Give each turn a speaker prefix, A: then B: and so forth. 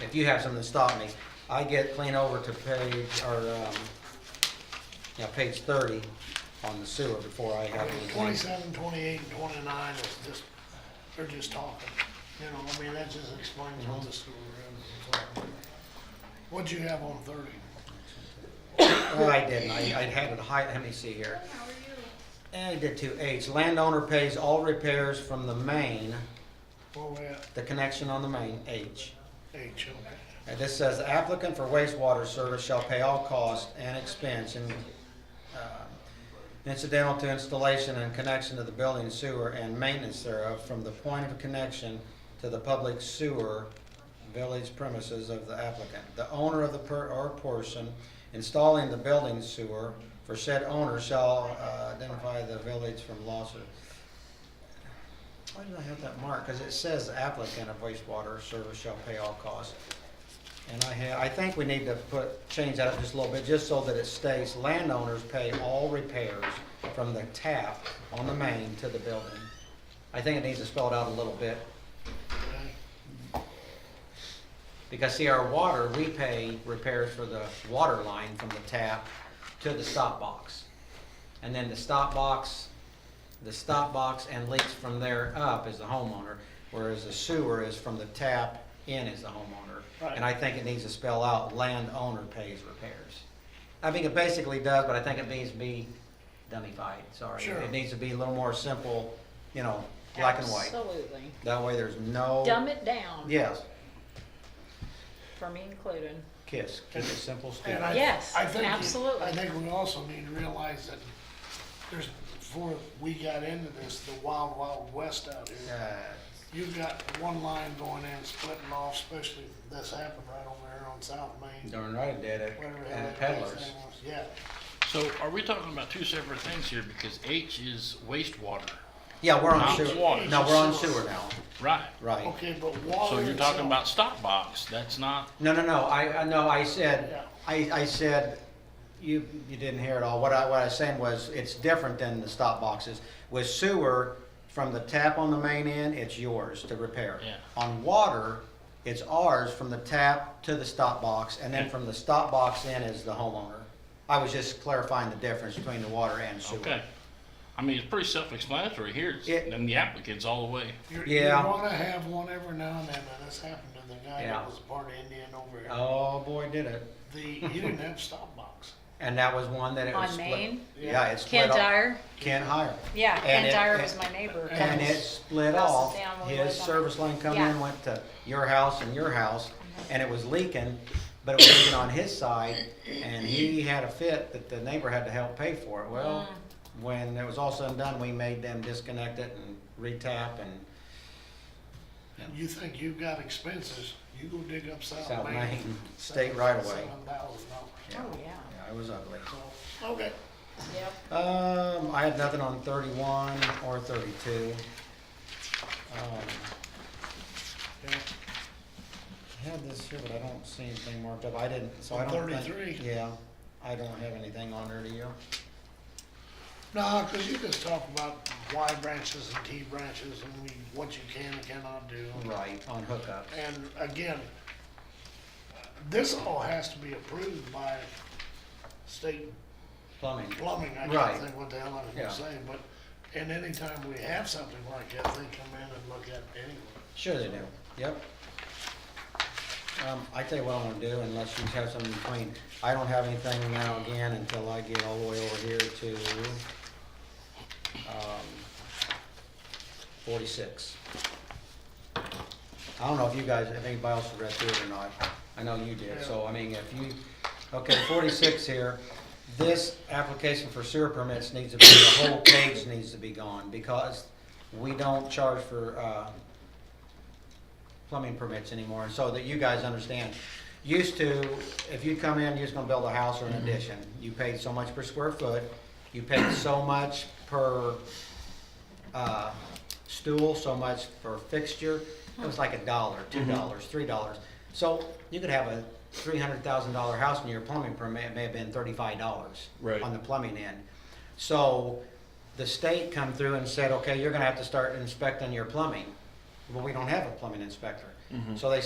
A: if you have something to stop me, I get clean over to page, or, um, yeah, page thirty on the sewer before I have anything.
B: Twenty-seven, twenty-eight, and twenty-nine is just, they're just talking, you know, I mean, that just explains
A: Mm-hmm.
B: all this. What'd you have on thirty?
A: No, I didn't, I, I had it high, let me see here. And I did two H, landowner pays all repairs from the main,
B: Where we at?
A: the connection on the main, H.
B: H, okay.
A: And this says the applicant for wastewater service shall pay all costs and expense in, uh, incidental to installation and connection to the building sewer and maintenance thereof from the point of connection to the public sewer village premises of the applicant. The owner of the per, or portion installing the building sewer for said owner shall uh, identify the village from lawsuit. Why did I have that marked? Because it says applicant of wastewater service shall pay all costs. And I ha I think we need to put, change that up just a little bit, just so that it states landowners pay all repairs from the tap on the main to the building. I think it needs to spell it out a little bit,
C: Uh,
B: okay.
A: because see, our water, we pay repairs for the water line from the tap to the stop box. And then the stop box, the stop box and leaks from there up is the homeowner, whereas the sewer is from the tap in is the homeowner. And I think it needs to spell out landowner pays repairs. I think it basically does, but I think it needs to be dummified, sorry.
B: Sure.
A: It needs to be a little more simple, you know, black and white. Oh.
C: Absolutely.
A: That way there's no.
C: Dumb it down.
A: Yes,
C: For me included.
A: KISS, keep it simple, stupid.
B: And I-
C: Yes,
B: I think you-
C: absolutely.
B: I think we also need to realize that there's, before we got into this, the wild, wild west out here. You've got one line going in, splitting off, especially this happened right over there on South Main.
A: Darn right it did it,
B: whatever the hell
A: and
B: that place
A: peddlers.
B: name was. Yeah,
D: So are we talking about two separate things here? Because H is wastewater,
A: Yeah, we're on
D: Not
A: sewer,
D: water.
A: no, we're on sewer now,
D: right? Oh,
A: right.
B: okay, but water.
D: So you're talking
B: itself-
D: about stop box, that's not,
A: No, no, no, I, I, no, I said,
B: Yeah.
A: I, I said, you, you didn't hear it all, what I, what I was saying was, it's different than the stop boxes. With sewer, from the tap on the main end, it's yours to repair.
D: Yeah.
A: On water, it's ours from the tap to the stop box, and then
D: Yeah.
A: from the stop box in is the homeowner. I was just clarifying the difference between the water and sewer.
D: okay. I mean, it's pretty self-explanatory here, It's-
A: It-
D: and the applicant's all the way.
B: You're,
A: Yeah.
B: You wanna have one every now and then, and this happened to the guy
A: Yeah.
B: that was part Indian over here.
A: Oh, boy, did it.
B: The, you didn't have stop box.
A: And that was one that it was
C: On
A: split.
C: Maine?
A: Yeah, it's split
C: Ken
A: off.
C: Dyer,
A: Ken Hire.
C: yeah,
A: And
C: Ken
A: it-
C: Dyer
A: and-
C: was my neighbor.
A: And it split
C: Houses
A: off.
C: down, we
A: His
C: live on-
A: service line come
C: Yeah. Mm-hmm.
A: in, went to your house and your house, and it was leaking, but it was leaking on his side, and he had a fit that the neighbor had to help pay for it. Well,
C: Mm.
A: when it was all said and done, we made them disconnect it and retap and
B: You think you've got expenses, you go dig up South
A: South
B: Main.
A: Main State right away.
B: Seven thousand dollars.
C: Oh, yeah,
A: yeah, it was ugly.
B: So, okay,
C: yep.
A: Um, I had nothing on thirty-one or thirty-two. Um,
B: yeah.
A: I had this here, but I don't see anything marked up, I didn't, so I
B: On
A: don't think.
B: 33.
A: Yeah, I don't have anything on there, do you?
B: No, cause you just talk about Y branches and T branches and we, what you can and cannot do.
A: Right, on hookups.
B: And again, this all has to be approved by state
A: Plumbing,
B: plumbing, I
A: Right.
B: can't think what the hell I was
A: Yeah.
B: gonna say, but, and anytime we have something like that, they come in and look at it anyway.
A: sure they do, yep. Um, I tell you what I'm gonna do, unless you have something in between, I don't have anything now again until I get all the way over here to, um, forty-six. I don't know if you guys, if anybody else read through it or not. I know you did, so I mean, if you, okay, forty-six here. This application for sewer permits needs to be, the whole page needs to be gone because we don't charge for, uh, plumbing permits anymore, so that you guys understand. Used to, if you come in, you're just gonna build a house or an addition. You paid so much per square foot, you paid so much per uh, stool, so much for fixture. It was like a dollar, two dollars, three dollars. So you could have a three hundred thousand dollar house and your plumbing permit may have been thirty-five dollars.
D: Right.
A: On the plumbing end. So the state come through and said, okay, you're gonna have to start inspecting your plumbing. Well, we don't have a plumbing inspector. So they